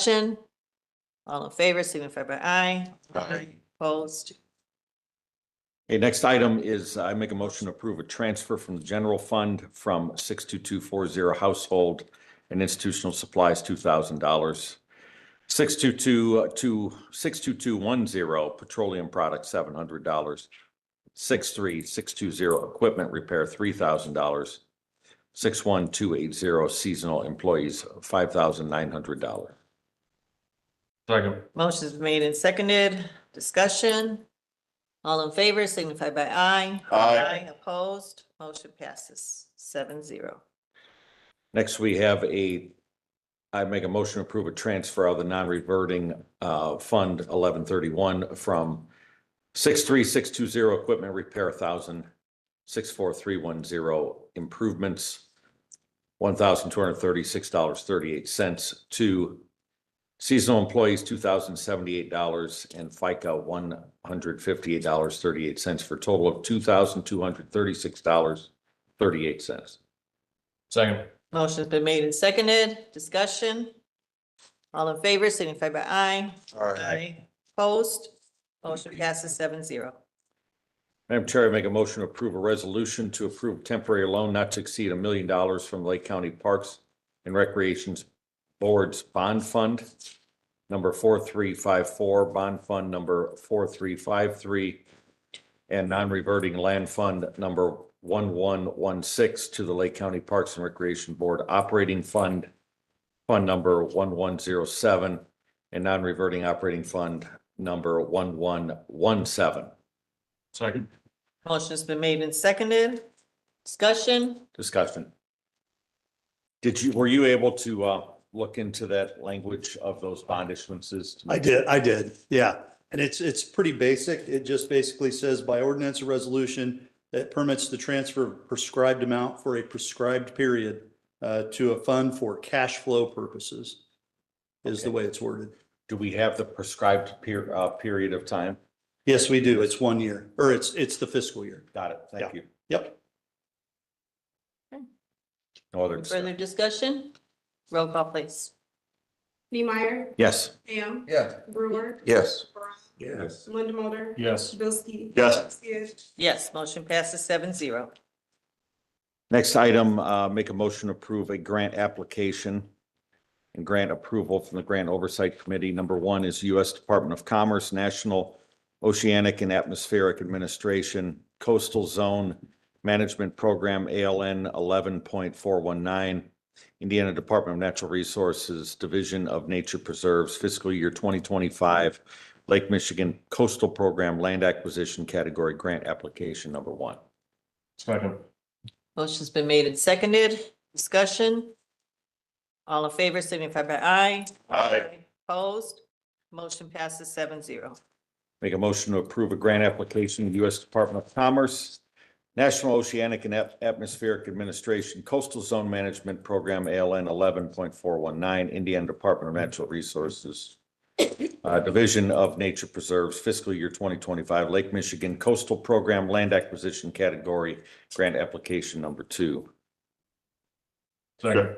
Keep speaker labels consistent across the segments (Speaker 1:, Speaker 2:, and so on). Speaker 1: Discussion? All in favor, signify by aye. Opposed?
Speaker 2: Okay, next item is uh, I make a motion to approve a transfer from the general fund from six two two four zero household and institutional supplies, two thousand dollars. Six two two uh, two, six two two one zero petroleum products, seven hundred dollars. Six three six two zero equipment repair, three thousand dollars. Six one two eight zero seasonal employees, five thousand nine hundred dollars.
Speaker 3: Second.
Speaker 1: Motion's made and seconded. Discussion? All in favor, signify by aye.
Speaker 3: Aye.
Speaker 1: Opposed? Motion passes seven zero.
Speaker 2: Next, we have a, I make a motion to approve a transfer of the non-reverting uh, Fund eleven thirty-one from six three six two zero equipment repair thousand, six four three one zero improvements, one thousand two hundred thirty-six dollars thirty-eight cents to seasonal employees, two thousand seventy-eight dollars and FICA, one hundred fifty-eight dollars thirty-eight cents for a total of two thousand two hundred thirty-six dollars thirty-eight cents.
Speaker 3: Second.
Speaker 1: Motion's been made and seconded. Discussion? All in favor, signify by aye. Opposed? Motion passes seven zero.
Speaker 2: Madam Chair, I make a motion to approve a resolution to approve temporary loan not to exceed a million dollars from Lake County Parks and Recreations Board's Bond Fund, number four three five four, Bond Fund number four three five three, and non-reverting land fund number one one one six to the Lake County Parks and Recreation Board Operating Fund, Fund number one one zero seven, and non-reverting operating fund number one one one seven.
Speaker 3: Second.
Speaker 1: Motion's been made and seconded. Discussion?
Speaker 2: discussion. Did you, were you able to uh look into that language of those bond issuances?
Speaker 4: I did, I did, yeah. And it's, it's pretty basic. It just basically says by ordinance or resolution that permits the transfer of prescribed amount for a prescribed period uh, to a fund for cash flow purposes is the way it's worded.
Speaker 2: Do we have the prescribed per, uh, period of time?
Speaker 4: Yes, we do. It's one year, or it's, it's the fiscal year.
Speaker 2: Got it. Thank you.
Speaker 4: Yep.
Speaker 2: No other.
Speaker 1: Further
Speaker 2: discussion.
Speaker 1: discussion? Roll call, please.
Speaker 5: Neemeyer,
Speaker 2: Yes.
Speaker 5: Ham,
Speaker 3: Yeah.
Speaker 5: Brewer,
Speaker 2: Yes.
Speaker 5: Brown,
Speaker 3: Yes.
Speaker 5: Lindamotor,
Speaker 3: Yes.
Speaker 5: Bilski.
Speaker 4: Yes.
Speaker 5: Skids,
Speaker 1: Yes, motion passes seven zero.
Speaker 2: Next item, uh, make a motion to approve a grant application and grant approval from the Grant Oversight Committee. Number one is U.S. Department of Commerce, National Oceanic and Atmospheric Administration Coastal Zone Management Program, ALN eleven point four one nine, Indiana Department of Natural Resources, Division of Nature Preserves, fiscal year twenty twenty-five, Lake Michigan Coastal Program Land Acquisition Category Grant Application Number One.
Speaker 3: Second.
Speaker 1: Motion's been made and seconded. Discussion? All in favor, signify by aye. Opposed? Motion passes seven zero.
Speaker 2: Make a motion to approve a grant application to the U.S. Department of Commerce, National Oceanic and At- Atmospheric Administration Coastal Zone Management Program, ALN eleven point four one nine, Indiana Department of Natural Resources, uh, Division of Nature Preserves, fiscal year twenty twenty-five, Lake Michigan Coastal Program Land Acquisition Category, grant application number two.
Speaker 3: Second.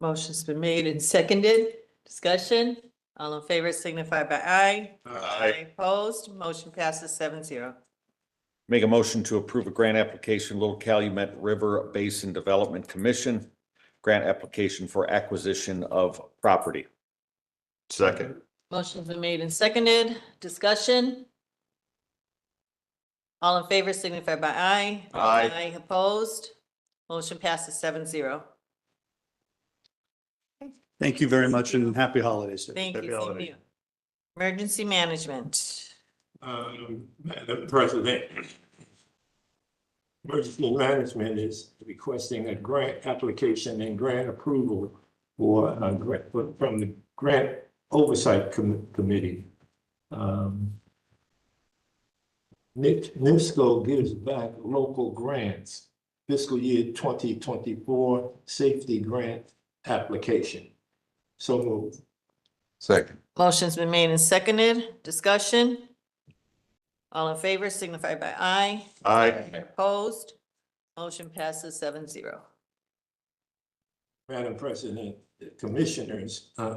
Speaker 1: Motion's been made and seconded. Discussion? All in favor, signify by aye. Opposed? Motion passes seven zero.
Speaker 2: Make a motion to approve a grant application, Little Calumet River Basin Development Commission, grant application for acquisition of property.
Speaker 3: Second.
Speaker 1: Motion's been made and seconded. Discussion? All in favor, signify by aye.
Speaker 3: Aye.
Speaker 1: Opposed? Motion passes seven zero.
Speaker 4: Thank you very much and happy holidays. to
Speaker 1: Thank you,
Speaker 4: everybody.
Speaker 1: same to you. Emergency management.
Speaker 6: Um, Madam President. Emergency Management is requesting a grant application and grant approval for, uh, grant, from the Grant Oversight Com- Committee. Um. Nic- NIPSCO gives back local grants fiscal year twenty twenty-four safety grant application. So moved.
Speaker 3: Second.
Speaker 1: Motion's been made and seconded. Discussion? All in favor signify by aye.
Speaker 3: Aye.
Speaker 1: Opposed? Motion passes seven zero.
Speaker 6: Madam President, commissioners, uh,